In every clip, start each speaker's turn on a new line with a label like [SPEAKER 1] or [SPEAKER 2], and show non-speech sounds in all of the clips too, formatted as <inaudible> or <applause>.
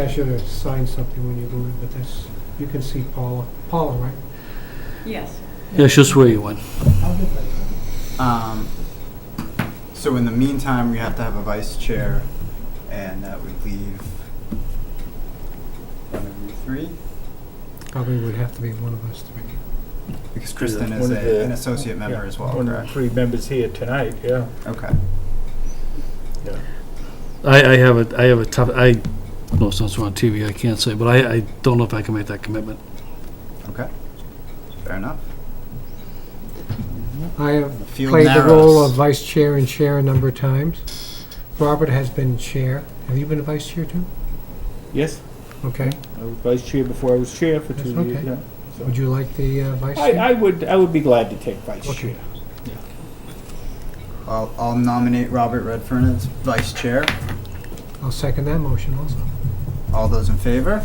[SPEAKER 1] I should have signed something when you go in, but that's, you can see Paula. Paula, right?
[SPEAKER 2] Yes.
[SPEAKER 3] Yeah, she'll swear you in.
[SPEAKER 4] Um, so in the meantime, we have to have a vice chair, and that would leave one of you three,
[SPEAKER 1] Probably would have to be one of us three.
[SPEAKER 4] because Kristen
[SPEAKER 5] Yeah,
[SPEAKER 4] is a,
[SPEAKER 5] one of the-
[SPEAKER 4] an associate member
[SPEAKER 5] Yeah,
[SPEAKER 4] as well,
[SPEAKER 5] One of the
[SPEAKER 4] correct?
[SPEAKER 5] three members here tonight, yeah.
[SPEAKER 4] Okay.
[SPEAKER 3] I, I have a, I have a tough, I, no, since we're on TV, I can't say, but I, I don't know if I can make that commitment.
[SPEAKER 4] Okay. Fair enough.
[SPEAKER 1] I have
[SPEAKER 4] Field
[SPEAKER 1] played the
[SPEAKER 4] narrows.
[SPEAKER 1] role of vice chair and chair a number of times. Robert has been chair. Have you been a vice chair too?
[SPEAKER 5] Yes,
[SPEAKER 1] Okay.
[SPEAKER 5] I was vice chair before I was chair for
[SPEAKER 1] That's
[SPEAKER 5] two
[SPEAKER 1] okay.
[SPEAKER 5] years, yeah.
[SPEAKER 1] Would you like the uh, vice
[SPEAKER 5] I,
[SPEAKER 1] chair?
[SPEAKER 5] I would, I would be glad to take vice
[SPEAKER 1] Okay.
[SPEAKER 5] chair.
[SPEAKER 4] I'll, I'll nominate Robert Redfern as vice chair.
[SPEAKER 1] I'll second that motion also.
[SPEAKER 4] All those in favor?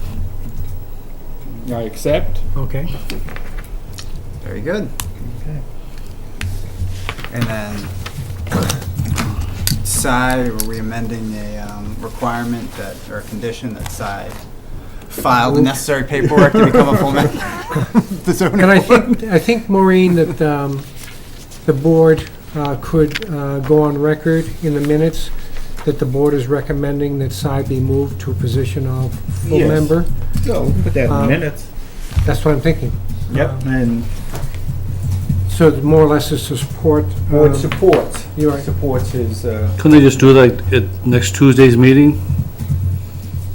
[SPEAKER 5] I accept.
[SPEAKER 1] Okay.
[SPEAKER 4] Very good.
[SPEAKER 5] Okay.
[SPEAKER 4] And then <coughs> SI, were we amending a um, requirement that, or a condition that SI file the necessary paperwork to become a full member? of <laughs> The zoning
[SPEAKER 1] And I
[SPEAKER 4] board?
[SPEAKER 1] think, I think Maureen, that um, the board uh, could uh, go on record in the minutes that the board is recommending that Si be moved to a position of full
[SPEAKER 5] Yes.
[SPEAKER 1] member.
[SPEAKER 5] So, put that
[SPEAKER 1] Um,
[SPEAKER 5] minutes.
[SPEAKER 1] That's what I'm thinking.
[SPEAKER 5] Yep, and
[SPEAKER 1] So it more or less is to support.
[SPEAKER 5] board
[SPEAKER 1] um,
[SPEAKER 5] supports,
[SPEAKER 1] you're right.
[SPEAKER 5] supports his, uh,
[SPEAKER 3] Couldn't they just do that at next Tuesday's meeting?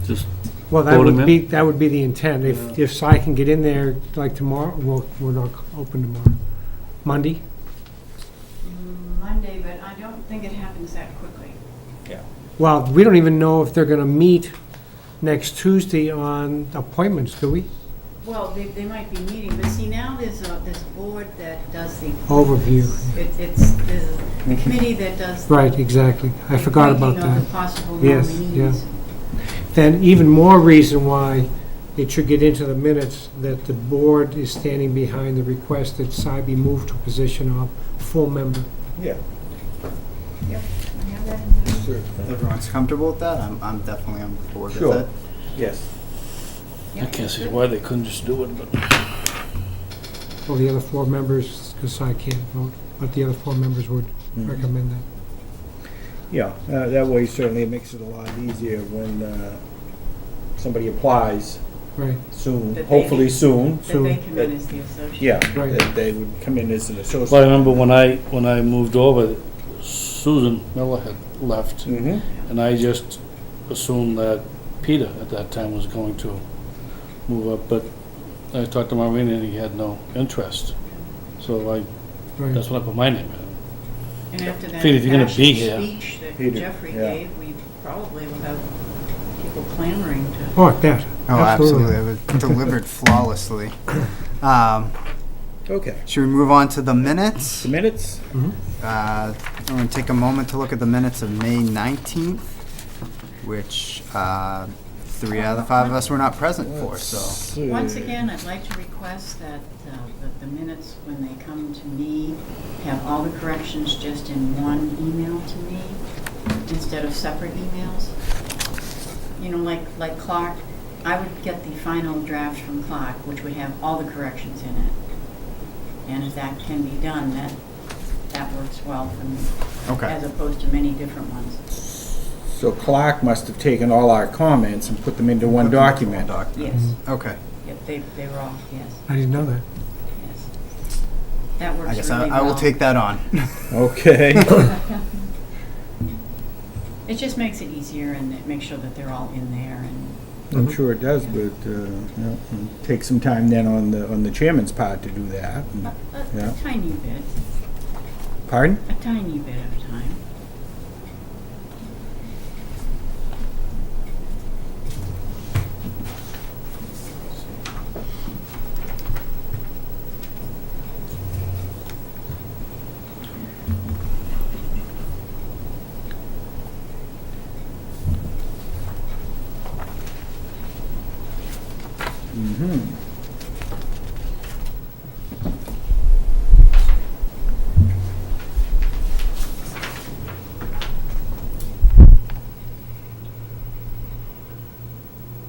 [SPEAKER 3] Just,
[SPEAKER 1] Well, that
[SPEAKER 3] voting
[SPEAKER 1] would
[SPEAKER 3] in?
[SPEAKER 1] be, that would be the intent. If, if Si can get in there, like tomorrow, well, we're not open tomorrow. Monday?
[SPEAKER 2] Monday, but I don't think it happens that quickly.
[SPEAKER 1] Well, we don't even know if they're going to meet next Tuesday on appointments, do we?
[SPEAKER 2] Well, they, they might be meeting, but see, now there's a, there's a board that does the.
[SPEAKER 1] Overview.
[SPEAKER 2] It, it's, there's a committee that does. the
[SPEAKER 1] Right, exactly. I forgot about
[SPEAKER 2] ranking of
[SPEAKER 1] that.
[SPEAKER 2] the possible
[SPEAKER 1] Yes,
[SPEAKER 2] nominees.
[SPEAKER 1] Then even more reason why it should get into the minutes that the board is standing behind the request that Si be moved to a position of full member.
[SPEAKER 5] yeah.
[SPEAKER 2] I have that in there.
[SPEAKER 4] Everyone's comfortable with that? I'm, I'm definitely on board with
[SPEAKER 5] Sure.
[SPEAKER 4] it.
[SPEAKER 5] Yes.
[SPEAKER 3] I
[SPEAKER 2] Yep,
[SPEAKER 3] can't see
[SPEAKER 2] good.
[SPEAKER 3] why they couldn't just do it, but
[SPEAKER 1] Well, the other four members, because Si can't vote, but the other four members would
[SPEAKER 4] Mm-hmm.
[SPEAKER 1] recommend that.
[SPEAKER 5] Yeah, uh, that way certainly it makes it a lot easier when, uh, somebody applies
[SPEAKER 1] Right,
[SPEAKER 5] soon,
[SPEAKER 2] That they-
[SPEAKER 5] hopefully soon.
[SPEAKER 2] That they come in as the associate.
[SPEAKER 5] Yeah,
[SPEAKER 1] Right.
[SPEAKER 5] that they would come in as an associate.
[SPEAKER 3] Well, I remember when I, when I moved over, Susan Miller had left,
[SPEAKER 5] Mm-hmm.
[SPEAKER 3] and I just assumed that Peter at that time was going to move up, but I talked to Maureen and he had no interest. So I, that's
[SPEAKER 1] right.
[SPEAKER 3] when I put my name in.
[SPEAKER 2] And after that
[SPEAKER 3] Peter, if you're gonna
[SPEAKER 2] impassioned
[SPEAKER 3] be here-
[SPEAKER 2] speech that
[SPEAKER 5] Peter,
[SPEAKER 2] Jeffrey
[SPEAKER 5] yeah.
[SPEAKER 2] gave, we probably will have people clamoring to.
[SPEAKER 1] Oh, that,
[SPEAKER 4] Oh, absolutely.
[SPEAKER 1] absolutely.
[SPEAKER 4] It was delivered flawlessly. Um,
[SPEAKER 5] Okay.
[SPEAKER 4] Should we move on to the minutes?
[SPEAKER 5] The minutes?
[SPEAKER 4] Uh, I'm going to take a moment to look at the minutes of May 19th, which uh, three out of the five of us were not present for, so.
[SPEAKER 5] so.
[SPEAKER 2] Once again, I'd like to request that, uh, that the minutes, when they come to me, have all the corrections just in one email to me instead of separate emails. You know, like, like Clark, I would get the final draft from Clark, which would have all the corrections in it. And if that can be done, that, that works well for me.
[SPEAKER 4] Okay.
[SPEAKER 2] As opposed to many different ones.
[SPEAKER 5] So Clark must have taken all our comments and put them into one document.
[SPEAKER 2] Yes,
[SPEAKER 4] Okay,
[SPEAKER 2] yep, they, they were all, yes,
[SPEAKER 1] I didn't know that.
[SPEAKER 2] yes. That works
[SPEAKER 4] I
[SPEAKER 2] really
[SPEAKER 4] guess
[SPEAKER 2] well.
[SPEAKER 4] I I will take that on. <laughs>
[SPEAKER 5] Okay. <coughs>
[SPEAKER 2] It just makes it easier and it makes sure that they're all in there and,
[SPEAKER 5] <laughs> I'm sure it does, but, uh, yeah, and take some time then on the, on the chairman's part to do that.
[SPEAKER 2] a- a
[SPEAKER 5] Yeah.
[SPEAKER 2] a tiny bit,
[SPEAKER 5] Pardon?
[SPEAKER 2] a tiny bit of time.
[SPEAKER 5] Mm-hmm.